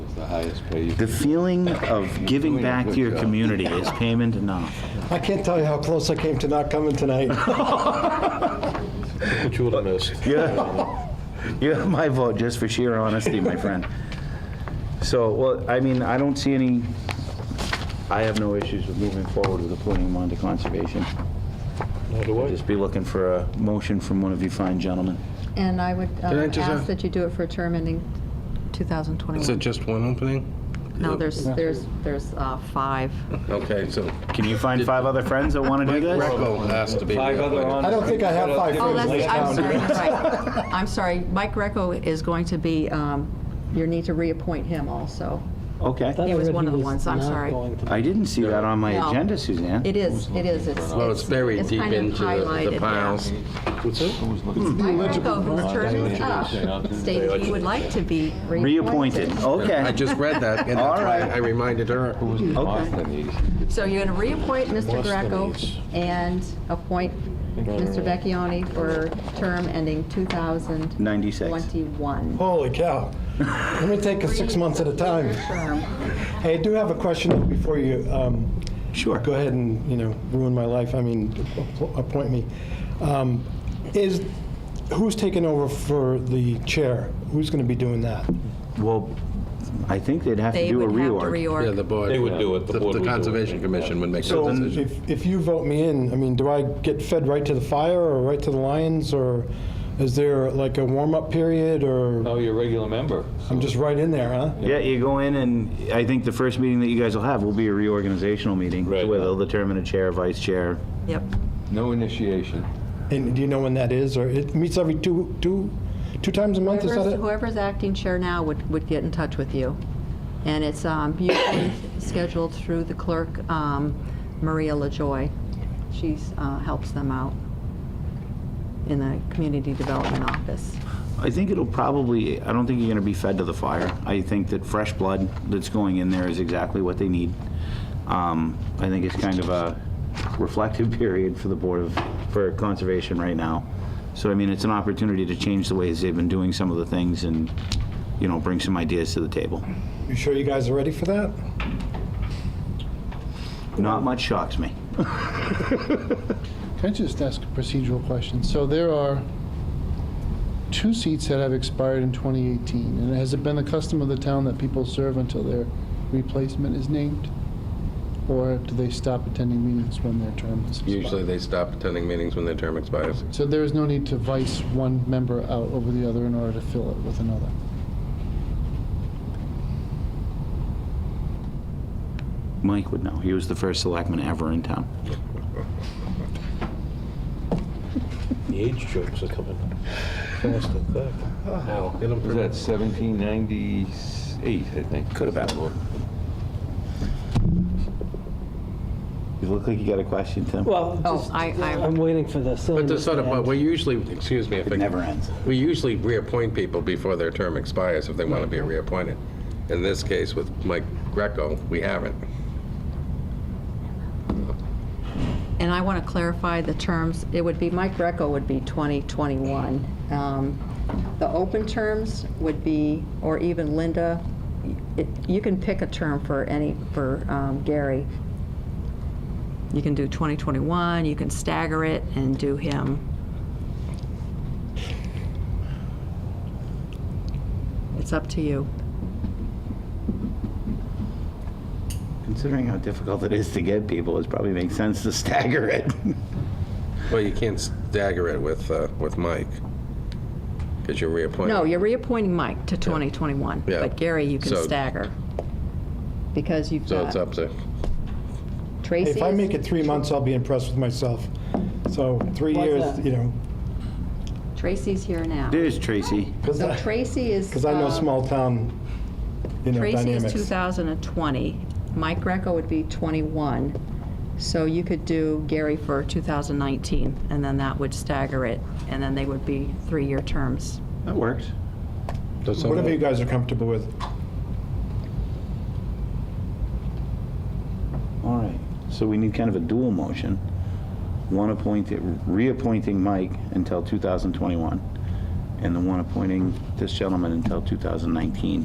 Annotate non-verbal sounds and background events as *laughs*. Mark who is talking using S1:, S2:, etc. S1: highest pay you
S2: The feeling of giving back to your community is payment enough.
S3: I can't tell you how close I came to not coming
S4: *laughs*
S3: tonight.
S5: What you would have missed.
S2: *laughs* You have my vote just for sheer honesty, my friend. So, well, I mean, I don't see any, I have no issues with moving forward with appointing him onto conservation.
S5: Nor do
S2: I'd
S5: I.
S2: Just be looking for a motion from one of you fine gentlemen.
S4: And I would uh,
S5: Can I just, uh,
S4: ask that you do it for a term ending
S5: Is it
S4: 2021.
S5: just one opening?
S2: uh,
S4: No, there's, there's, there's uh, five.
S5: Okay, so.
S2: Can you find five other friends that want to do this?
S5: Greco has to be.
S1: Five other on-
S3: I don't think I have five
S4: Oh,
S3: friends
S4: that's,
S3: in
S4: I'm
S3: town.
S4: sorry, right. *laughs* I'm sorry. Mike Greco is going to be, um, you need to reappoint him also.
S2: Okay.
S4: He was one of the ones, I'm sorry.
S2: I didn't see that on my
S4: No.
S2: agenda, Suzanne.
S4: It is, it is, it's.
S5: Well, it's buried deep
S4: kind of
S5: into the-
S4: highlighted,
S5: the
S4: yeah.
S5: piles. What's that?
S1: Who's looking for-
S4: Mike Greco, whose term is up, stated he would like to be reappointed.
S2: Reappointed, okay.
S5: I just read that, and that's
S2: All
S5: why
S2: right.
S5: I reminded her.
S1: Who's the Boston
S4: So you're going to reappoint Mr. Greco and appoint Mr. Vecchione for term ending 2021.
S2: 96.
S3: Holy cow. Let me take it six months at a time.
S4: Term.
S3: Hey, I do have a question before you, um,
S2: Sure.
S3: go ahead and, you know, ruin my life, I mean, appo- appoint me. Um, Is, who's taking over for the chair? Who's going to be doing that?
S2: Well, I think they'd have to
S4: They
S2: do a
S4: would have to
S2: reorg.
S5: Yeah,
S4: reorg.
S5: the board.
S1: They would do it. The board would do it.
S5: Conservation Commission would make
S3: So
S5: that decision.
S3: if, if you vote me in, I mean, do I get fed right to the fire or right to the lions? Or is there like a warm-up period or,
S1: No, Oh, you're a regular member.
S3: I'm just right in there, huh?
S2: Yeah, you go in and I think the first meeting that you guys will have will be a reorganizational meeting.
S1: Right.
S2: Where they'll determine a chair, vice chair.
S4: Yep.
S1: No initiation.
S3: And do you know when that is? Or it meets every two, two, two times a month, is that
S4: Whoever's
S3: it?
S4: whoever's acting chair now would, would get in touch with you. And it's um, usually *coughs* scheduled through the clerk, um, Maria LaJoy. She's, uh, helps them out in the community development office.
S2: I think it'll probably, I don't think you're going to be fed to the fire. I think that fresh blood that's going in there is exactly what they need. Um, I think it's kind of a reflective *laughs* period for the Board of, for Conservation right now. So, I mean, it's an opportunity to change the ways they've been doing some of the things and, you know, bring some ideas to the table.
S3: You sure you guys are ready for that?
S2: Not much shocks me.
S6: Can I just ask a procedural question? So there are two seats that have expired in 2018, and has it been the custom of the town that people serve until their replacement is named? Or do they stop attending meetings when their term is expired?
S5: Usually they stop attending meetings when their term expires.
S6: So there is no need to vice one member out over the other in order to fill it with another?
S2: Mike would know. He was the first selectman ever in town.
S7: The age jokes are coming fast and thick. Now,
S5: Get 'em
S1: Was that 1798, I think?
S2: Could have been. You look like you got a question, Tim.
S7: Well,
S4: Oh,
S7: just-
S4: I- I-
S7: I'm waiting for the
S5: But
S7: silliness
S5: this
S7: to
S5: sort
S7: end.
S5: of, we usually, excuse me, if
S2: It never
S5: I,
S2: ends.
S5: we usually reappoint people before their term expires if they want to be reappointed. In this case, with Mike Greco, we haven't.
S4: And I want to clarify the terms, it would be, Mike Greco would be 2021. Um, The open terms would be, or even Linda, it- you can pick a term for any, for um, Gary. You can do 2021, you can stagger it and do him. It's up to you.
S2: Considering how difficult it is to get people, it probably makes sense to *laughs* stagger it.
S5: Well, you can't stagger it with, uh, with Mike, because you're reappointing.
S4: No, you're reappointing Mike to 2021,
S5: Yeah.
S4: but Gary, you can
S5: So-
S4: stagger. Because you've
S5: So it's
S4: got
S5: up to,
S4: Tracy.
S3: If I make it three months, I'll be impressed with myself. So three
S7: Why's
S3: years,
S7: that?
S3: you know,
S4: Tracy's here now.
S2: There's Tracy.
S4: *laughs*
S3: because
S4: So
S3: I,
S4: Tracy is.
S3: *laughs* 'cause I know
S4: um,
S3: small town, you know,
S4: Tracy
S3: dynamics.
S4: is 2020. Mike Greco would be 21. So you could do Gary for 2019, and then that would stagger it, and then they would be three-year terms.
S2: That works.
S5: so
S3: Whatever you
S5: someone,
S3: guys are comfortable with.
S2: All right. So we need kind of a dual motion. One appointing, reappointing Mike until 2021, and the one appointing this gentleman until 2019.